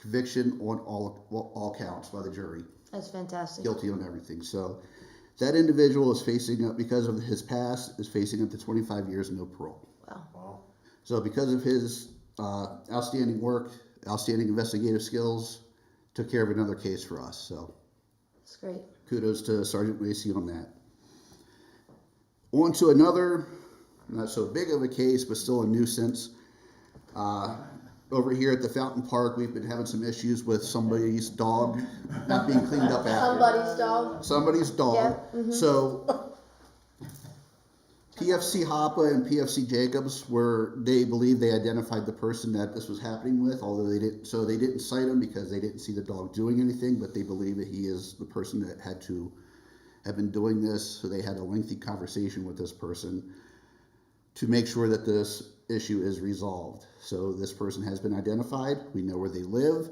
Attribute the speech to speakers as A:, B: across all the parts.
A: conviction on all, well, all counts by the jury
B: That's fantastic.
A: guilty on everything. So that individual is facing up because of his past is facing up to 25 years and no parole.
B: Wow.
A: So because of his uh, outstanding work, outstanding investigative skills, took care of another case for us. So
B: That's great.
A: kudos to Sergeant Lacey on that. On to another, not so big of a case, but still a nuisance. Uh, over here at the Fountain Park, we've been having some issues with somebody's dog not being cleaned up after
B: Somebody's dog.
A: somebody's dog. So PFC Hoppe and PFC Jacobs were they believe they identified the person that this was happening with, although they didn't. So they didn't cite him because they didn't see the dog doing anything, but they believe that he is the person that had to have been doing this. So they had a lengthy conversation with this person to make sure that this issue is resolved. So this person has been identified. We know where they live.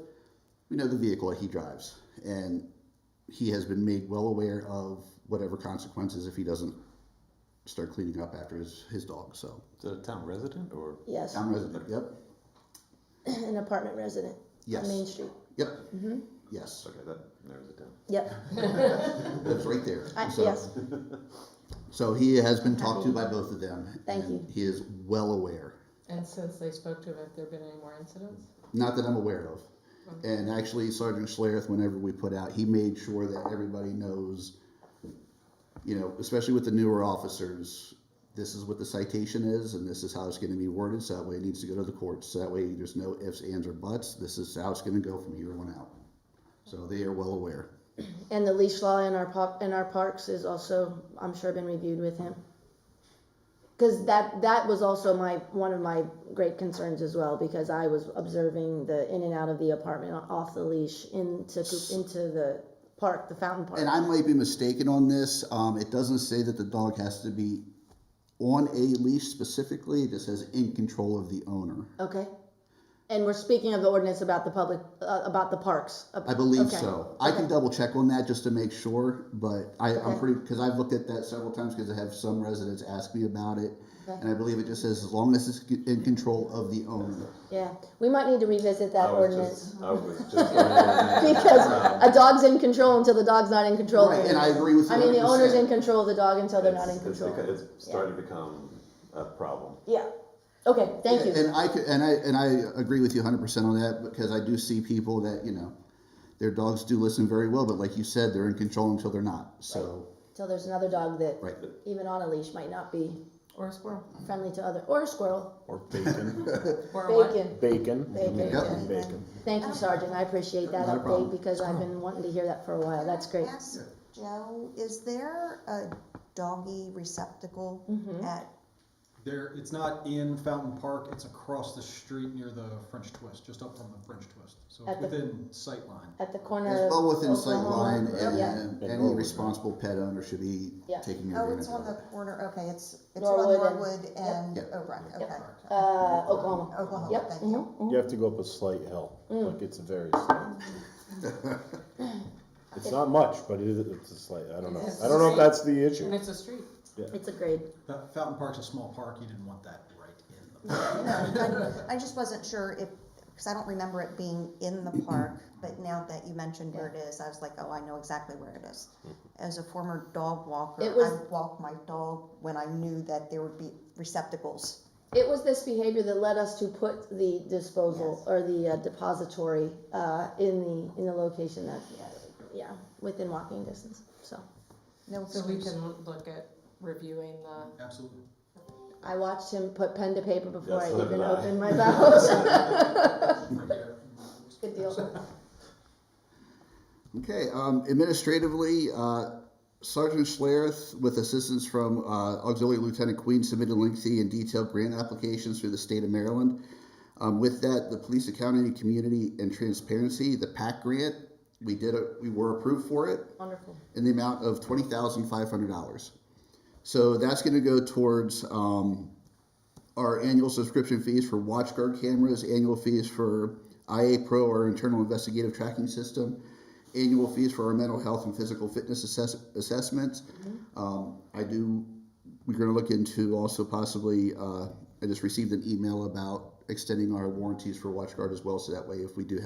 A: We know the vehicle that he drives, and he has been made well aware of whatever consequences if he doesn't start cleaning up after his, his dog. So
C: Is it a town resident or?
B: Yes.
A: I'm resident. Yep.
B: An apartment resident.
A: Yes.
B: On Main Street.
A: Yep.
B: Mm-hmm.
A: Yes.
C: Okay, that narrows it down.
B: Yep.
A: That's right there.
B: I,
A: so,
B: Uh, yes.
A: so he has been talked to by both of them.
B: Thank
A: and
B: you.
A: He is well aware.
D: And since they spoke to him, have there been any more incidents?
A: Not that I'm aware of. And actually, Sergeant Schlereth, whenever we put out, he made sure that everybody knows, you know, especially with the newer officers, this is what the citation is and this is how it's going to be worded. So that way it needs to go to the courts. So that way there's no ifs, ands, or buts. This is how it's going to go from here on out. So they are well aware.
B: And the leash law in our pop, in our parks is also, I'm sure, been reviewed with him. Because that that was also my one of my great concerns as well because I was observing the in and out of the apartment off the leash into into the park, the fountain park.
A: And I might be mistaken on this. Um, it doesn't say that the dog has to be on a leash specifically. It just says in control of the owner.
B: Okay. And we're speaking of the ordinance about the public, uh, about the parks.
A: I believe
B: Okay.
A: so. I can double check on that just to make sure, but I, I'm
B: Okay.
A: pretty, because I've looked at that several times because I have some residents ask me about it.
B: Okay.
A: And I believe it just says as long as it's in control of the owner.
B: Yeah, we might need to revisit that
C: I was
B: ordinance.
C: just, I was just. going over that.
B: Because a dog's in control until the dog's not in control.
A: Right, and I agree with you.
B: I mean, the owner's
A: 100%.
B: in control of the dog until they're not in
C: It's- it's
B: control.
C: beca- It's starting to become a problem.
B: Yeah, okay, thank you.
A: And I could, and I and I agree with you 100 percent on that because I do see people that you know their dogs do listen very well, but like you said, they're in control until they're not. So
B: Till there's another dog that,
A: right,
B: even on a leash, might not be
D: Or a squirrel?
B: friendly to other, or a squirrel.
E: Or bacon.
D: Or a what?
B: Bacon.
E: Bacon.
B: Bacon.
A: Yeah.
E: Bacon.
B: Thank you, Sergeant, I appreciate that
A: Not a problem.
B: update because I've been wanting to hear that for a while, Oh, that's great.
F: Yes, Joe, is there a doggy receptacle
B: Mm-hmm.
F: at,
G: There, it's not in Fountain Park, it's across the street near the French Twist, just up from the French Twist. So
B: At
G: it's
B: the-
G: within sight line.
B: At the corner of.
A: it's well within sight
B: Oklahoma-
A: line, and,
B: Yeah.
A: and any responsible pet owner should be
B: Yeah.
A: taking advantage.
F: oh, it's
A: of
F: on
A: it.
F: the corner, okay, it's, it's on
B: Norwood and-
F: Norwood and
A: Yep.
F: O'Brien,
B: Uh,
F: okay.
B: Oklahoma.
F: Oklahoma,
B: Yep.
F: thank
B: mhm.
F: you.
E: You have to go up a slight hill.
B: Mm.
E: Like it's a very slight. It's not much, but it is, it's a slight, I don't know. I don't know if that's the
D: And
E: issue.
D: it's a street.
B: It's a grade.
G: Fa- Fountain Park's a small park, you didn't want that right in the.
B: Mm-hmm.
F: No, I I just wasn't sure if, because I don't remember it being in the park, but now that you mentioned where it is, I was like, oh, I know exactly where it is.
A: Mm-hmm.
F: As a former dog walker,
B: It was-
F: I walked my dog when I knew that there would be receptacles.
B: It was this behavior that led us to put the disposal
F: Yes.
B: or the uh, depository uh, in the in the location that yeah within walking distance. So
F: No
D: So we
F: excuse.
D: can look at reviewing the,
G: Absolutely.
B: I watched him put pen to paper before
C: Yes,
B: I
C: so did
B: even
C: I.
B: opened my mouth. Good
G: Absolutely.
B: deal.
A: Okay, um, administratively, uh, Sergeant Schlereth, with assistance from uh, Auxiliary Lieutenant Queen, submitted lengthy and detailed grant applications through the state of Maryland. Um, with that, the Police Accounting Community and Transparency, the PAC grant, we did, a, we were approved for it
B: Wonderful.
A: in the amount of twenty thousand five hundred dollars. So that's going to go towards um, our annual subscription fees for WatchGuard cameras, annual fees for IA Pro, our internal investigative tracking system, annual fees for our mental health and physical fitness assess- assessments. Um, I do. We're going to look into also possibly. Uh, I just received an email about extending our warranties for WatchGuard as well, so that way if we do have